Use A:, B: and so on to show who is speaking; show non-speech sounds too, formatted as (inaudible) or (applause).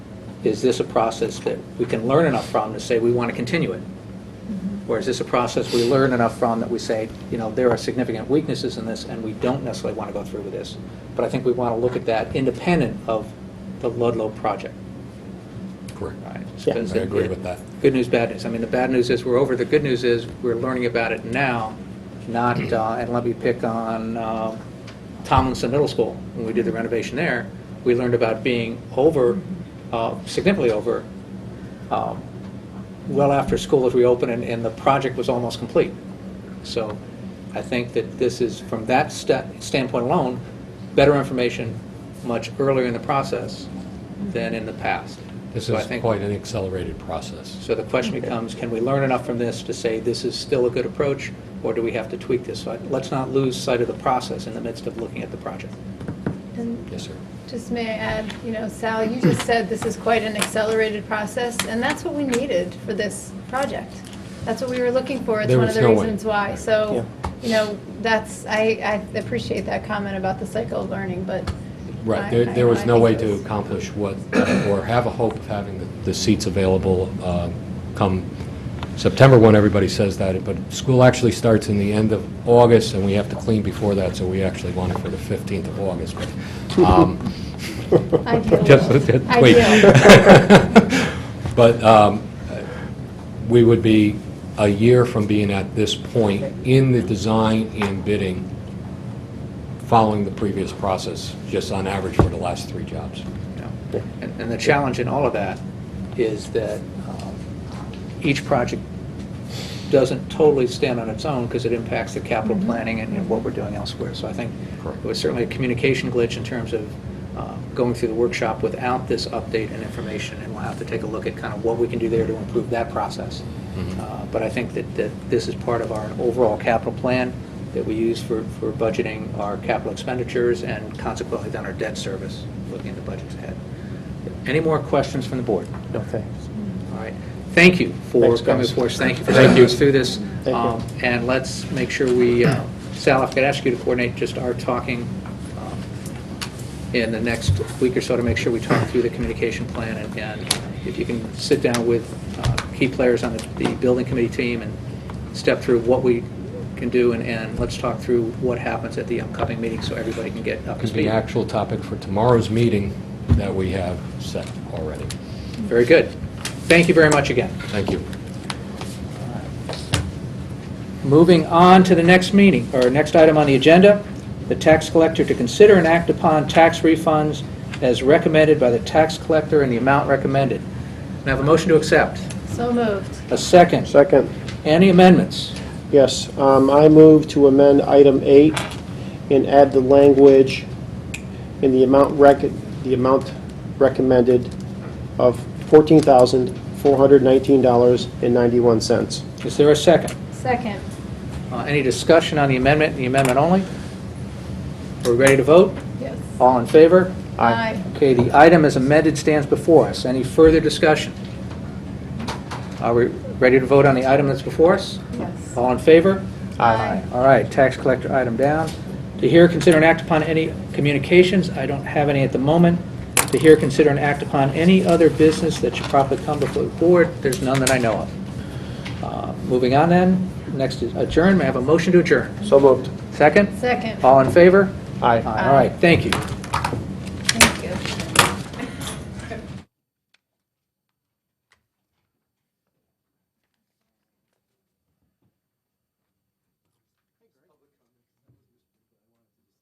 A: is this a process that we can learn enough from to say we want to continue it? Or is this a process we learn enough from that we say, you know, there are significant weaknesses in this, and we don't necessarily want to go through with this? But I think we want to look at that independent of the Ludlow project.
B: Correct.
A: right?
C: Yeah.
A: Because
B: I agree
A: it-
B: with that.
A: Good news, bad news. I mean, the bad news is we're over, the good news is we're learning about it now, not,
B: (clears throat)
A: uh, and let me pick on um, Tomlinson Middle School, when we did the renovation there, we learned about being over, uh, significantly over, um, well after school was reopened and, and the project was almost complete. So I think that this is, from that sta- standpoint alone, better information much earlier in the process than in the past.
B: This
A: So I
B: is
A: think-
B: quite an accelerated process.
A: So the question becomes, can we learn enough from this to say this is still a good approach, or do we have to tweak this? So I- Let's not lose sight of the process in the midst of looking at the project.
D: And
B: Yes, sir.
D: just may I add, you know, Sal, you just said this is quite an accelerated process, and that's what we needed for this project. That's what we were looking for. It's
B: There
D: one
B: was
D: of the
B: no way.
D: reasons why. So, you know, that's, I, I appreciate that comment about the cycle of learning, but. I-
B: Right, there,
D: I-
B: there was
D: I
B: no
D: think
B: way
D: it
B: to
D: was-
B: accomplish what, uh, or have a hope of having the- the seats available uh, come September, when everybody says that, but school actually starts in the end of August, and we have to clean before that, so we actually want it for the 15th of August. but, um, (laughs)
D: Ideal.
B: Just, wait. (laughs) But um, we would be a year from being at this point in the design and bidding, following the previous process, just on average for the last three jobs.
A: you know. And and the challenge in all of that is that um, each project doesn't totally stand on its own because it impacts the capital planning and and what we're doing elsewhere. So I think
B: Correct.
A: it was certainly a communication glitch in terms of uh, going through the workshop without this update and information, and we'll have to take a look at kind of what we can do there to improve that process. Uh, But I think that, that this is part of our overall capital plan that we use for, for budgeting our capital expenditures and consequently then our debt service, looking at the budgets ahead. Any more questions from the board?
C: No, thanks.
A: All right. Thank you for
C: Thanks,
A: coming
C: guys.
A: before us. Thank you for
B: Thank
A: taking
B: you.
A: us through this.
C: Thank you.
A: Um, And let's make sure we, uh, Sal, if I could ask you to coordinate just our talking um, in the next week or so to make sure we talk through the communication plan. and- And if you can sit down with uh, key players on the- the building committee team and step through what we can do and, and let's talk through what happens at the upcoming meeting so everybody can get up to
B: Because the
A: speed.
B: actual topic for tomorrow's meeting that we have set already.
A: Very good. Thank you very much again.
B: Thank you.
A: Moving on to the next meeting, or next item on the agenda, the tax collector to consider and act upon tax refunds as recommended by the tax collector and the amount recommended. May I have a motion to accept?
D: So moved.
A: A second.
C: Second,
A: Any amendments?
C: yes, um, I move to amend item eight and add the language in the amount rec, the amount recommended of fourteen thousand, four hundred nineteen dollars and ninety-one cents.
A: Is there a second?
D: Second.
A: Uh, Any discussion on the amendment, the amendment only? Are we ready to vote?
D: Yes.
A: All in favor?
D: Aye.
A: Okay, the item as amended stands before us. Any further discussion? Are we ready to vote on the item that's before us?
D: Yes.
A: All in favor?
D: Aye.
A: All right, tax collector item down. To hear, consider, and act upon any communications, I don't have any at the moment. To hear, consider, and act upon any other business that should properly come before the board, there's none that I know of. Uh, Moving on then, next is adjourn, may I have a motion to adjourn?
C: So moved.
A: Second?
D: Second.
A: All in favor?
C: Aye.
A: All right, thank you.